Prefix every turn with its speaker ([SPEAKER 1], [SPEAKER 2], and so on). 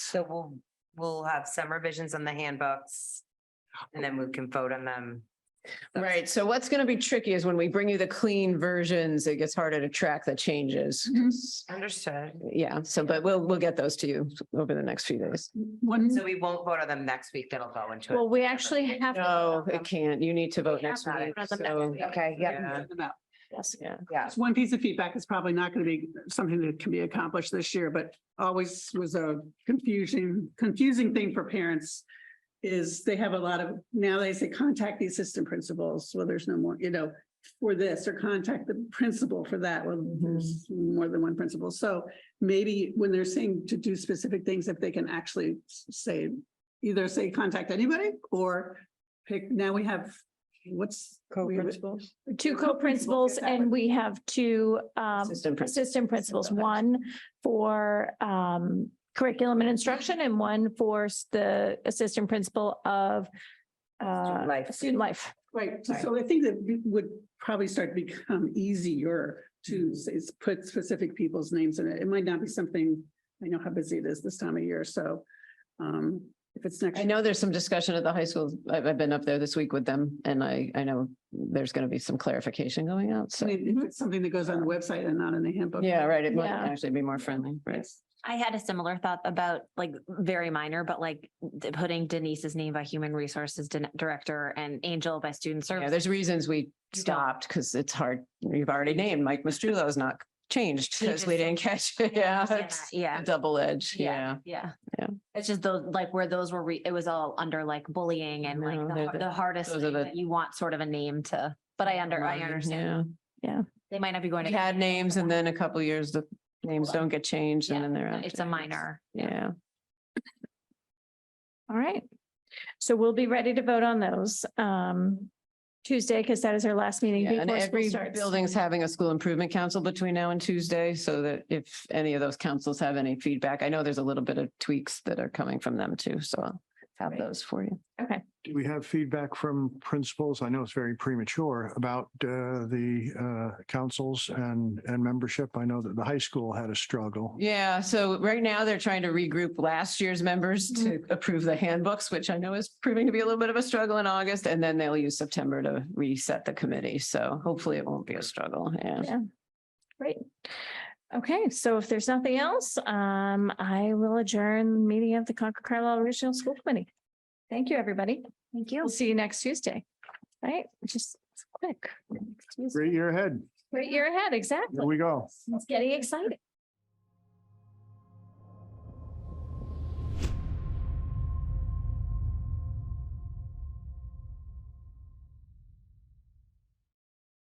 [SPEAKER 1] So we'll, we'll have some revisions on the handbooks and then we can vote on them.
[SPEAKER 2] Right, so what's gonna be tricky is when we bring you the clean versions, it gets harder to track the changes.
[SPEAKER 3] Mm-hmm.
[SPEAKER 2] 'cause-
[SPEAKER 1] Understood.
[SPEAKER 2] Yeah, so but we'll, we'll get those to you over the next few days.
[SPEAKER 3] One,
[SPEAKER 1] So we won't vote on them next week. That'll go into it.
[SPEAKER 4] Well, we actually have. to
[SPEAKER 2] No,
[SPEAKER 4] vote on
[SPEAKER 2] it can't. You need to vote next
[SPEAKER 4] have
[SPEAKER 2] week.
[SPEAKER 4] vote on them next
[SPEAKER 2] So,
[SPEAKER 4] week.
[SPEAKER 1] Okay,
[SPEAKER 2] uh,
[SPEAKER 1] yeah.
[SPEAKER 3] about-
[SPEAKER 4] this.
[SPEAKER 2] yeah.
[SPEAKER 1] Yeah.
[SPEAKER 3] just one piece of feedback is probably not going to be something that can be accomplished this year, but always was a confusing, confusing thing for parents is they have a lot of, now they say contact the assistant principals, well, there's no more, you know, for this or contact the principal for that, well, there's more than one principal. So maybe when they're saying to do specific things, if they can actually s- say, either say contact anybody or pick, now we have, what's? we have-
[SPEAKER 4] Two
[SPEAKER 3] Co-principals,
[SPEAKER 4] co-principals
[SPEAKER 3] yeah, that
[SPEAKER 4] and
[SPEAKER 3] would-
[SPEAKER 4] we have two um
[SPEAKER 2] Assistant principals.
[SPEAKER 4] assistant principals,
[SPEAKER 2] Assistant
[SPEAKER 4] one for um curriculum and instruction and one for s- the assistant principal of uh
[SPEAKER 1] life.
[SPEAKER 4] student life.
[SPEAKER 3] Right, so- so I think that it would probably start to become easier
[SPEAKER 2] Mm-hmm.
[SPEAKER 3] to s- is put specific people's names in it. It might not be something, I know how busy it is this time of year, so um, if it's next.
[SPEAKER 2] I know there's some discussion at the high school. I've, I've been up there this week with them and I, I know there's gonna be some clarification going out.
[SPEAKER 3] I
[SPEAKER 2] So,
[SPEAKER 3] mean, If it's something that goes on the website and not in the handbook.
[SPEAKER 2] yeah, right. It might
[SPEAKER 4] Yeah.
[SPEAKER 2] actually be more friendly, right?
[SPEAKER 5] I had a similar thought about like very minor, but like d- putting Denise's name by human resources din- director and Angel by student
[SPEAKER 2] Yeah,
[SPEAKER 5] service.
[SPEAKER 2] there's reasons we stopped because it's hard. You've already named Mike Mastrulo's not changed
[SPEAKER 5] He
[SPEAKER 2] because we
[SPEAKER 5] just-
[SPEAKER 2] didn't catch it. Yeah.
[SPEAKER 5] Yeah,
[SPEAKER 2] it's
[SPEAKER 5] Yeah,
[SPEAKER 2] a Double edge.
[SPEAKER 5] yeah,
[SPEAKER 2] Yeah.
[SPEAKER 5] yeah.
[SPEAKER 2] Yeah.
[SPEAKER 5] It's just those, like where those were, re- it was all under like bullying and like
[SPEAKER 2] No,
[SPEAKER 5] the
[SPEAKER 2] they're
[SPEAKER 5] har-
[SPEAKER 2] the-
[SPEAKER 5] the hardest
[SPEAKER 2] those are
[SPEAKER 5] thing
[SPEAKER 2] the-
[SPEAKER 5] that you want sort of a name to, but I under, I
[SPEAKER 2] Remind,
[SPEAKER 5] understand. They might not be
[SPEAKER 2] Yeah.
[SPEAKER 5] going
[SPEAKER 2] We
[SPEAKER 5] to.
[SPEAKER 2] had names and then a couple years, the names don't get changed and
[SPEAKER 5] Yeah,
[SPEAKER 2] then they're. out
[SPEAKER 5] It's a
[SPEAKER 2] there.
[SPEAKER 5] minor.
[SPEAKER 2] Yeah.
[SPEAKER 4] All right. So we'll be ready to vote on those um Tuesday, because that is our last meeting
[SPEAKER 2] Yeah, And
[SPEAKER 4] before school
[SPEAKER 2] every
[SPEAKER 4] starts.
[SPEAKER 2] building's having a school improvement council between now and Tuesday, so that if any of those councils have any feedback, I know there's a little bit of tweaks that are coming from them too, so I'll have
[SPEAKER 4] Right.
[SPEAKER 2] those for you.
[SPEAKER 6] Do we have feedback from principals? I know it's very premature about uh, the uh, councils and, and membership. I know that the high school had a struggle.
[SPEAKER 2] Yeah, so right now they're trying to regroup last year's members to approve the handbooks, which I know is proving to be a little bit of a struggle in August, and then they'll use September to reset the committee, so hopefully it won't be a struggle, yeah.
[SPEAKER 4] Yeah. Great. Okay, so if there's nothing else, um, I will adjourn the meeting of the Concord Carlisle Regional School Committee. Thank you, everybody. Thank you. We'll see you next Tuesday. Right, just quick.
[SPEAKER 6] Great year ahead.
[SPEAKER 4] Great year ahead,
[SPEAKER 6] Here
[SPEAKER 4] exactly.
[SPEAKER 6] we go.
[SPEAKER 4] It's getting exciting.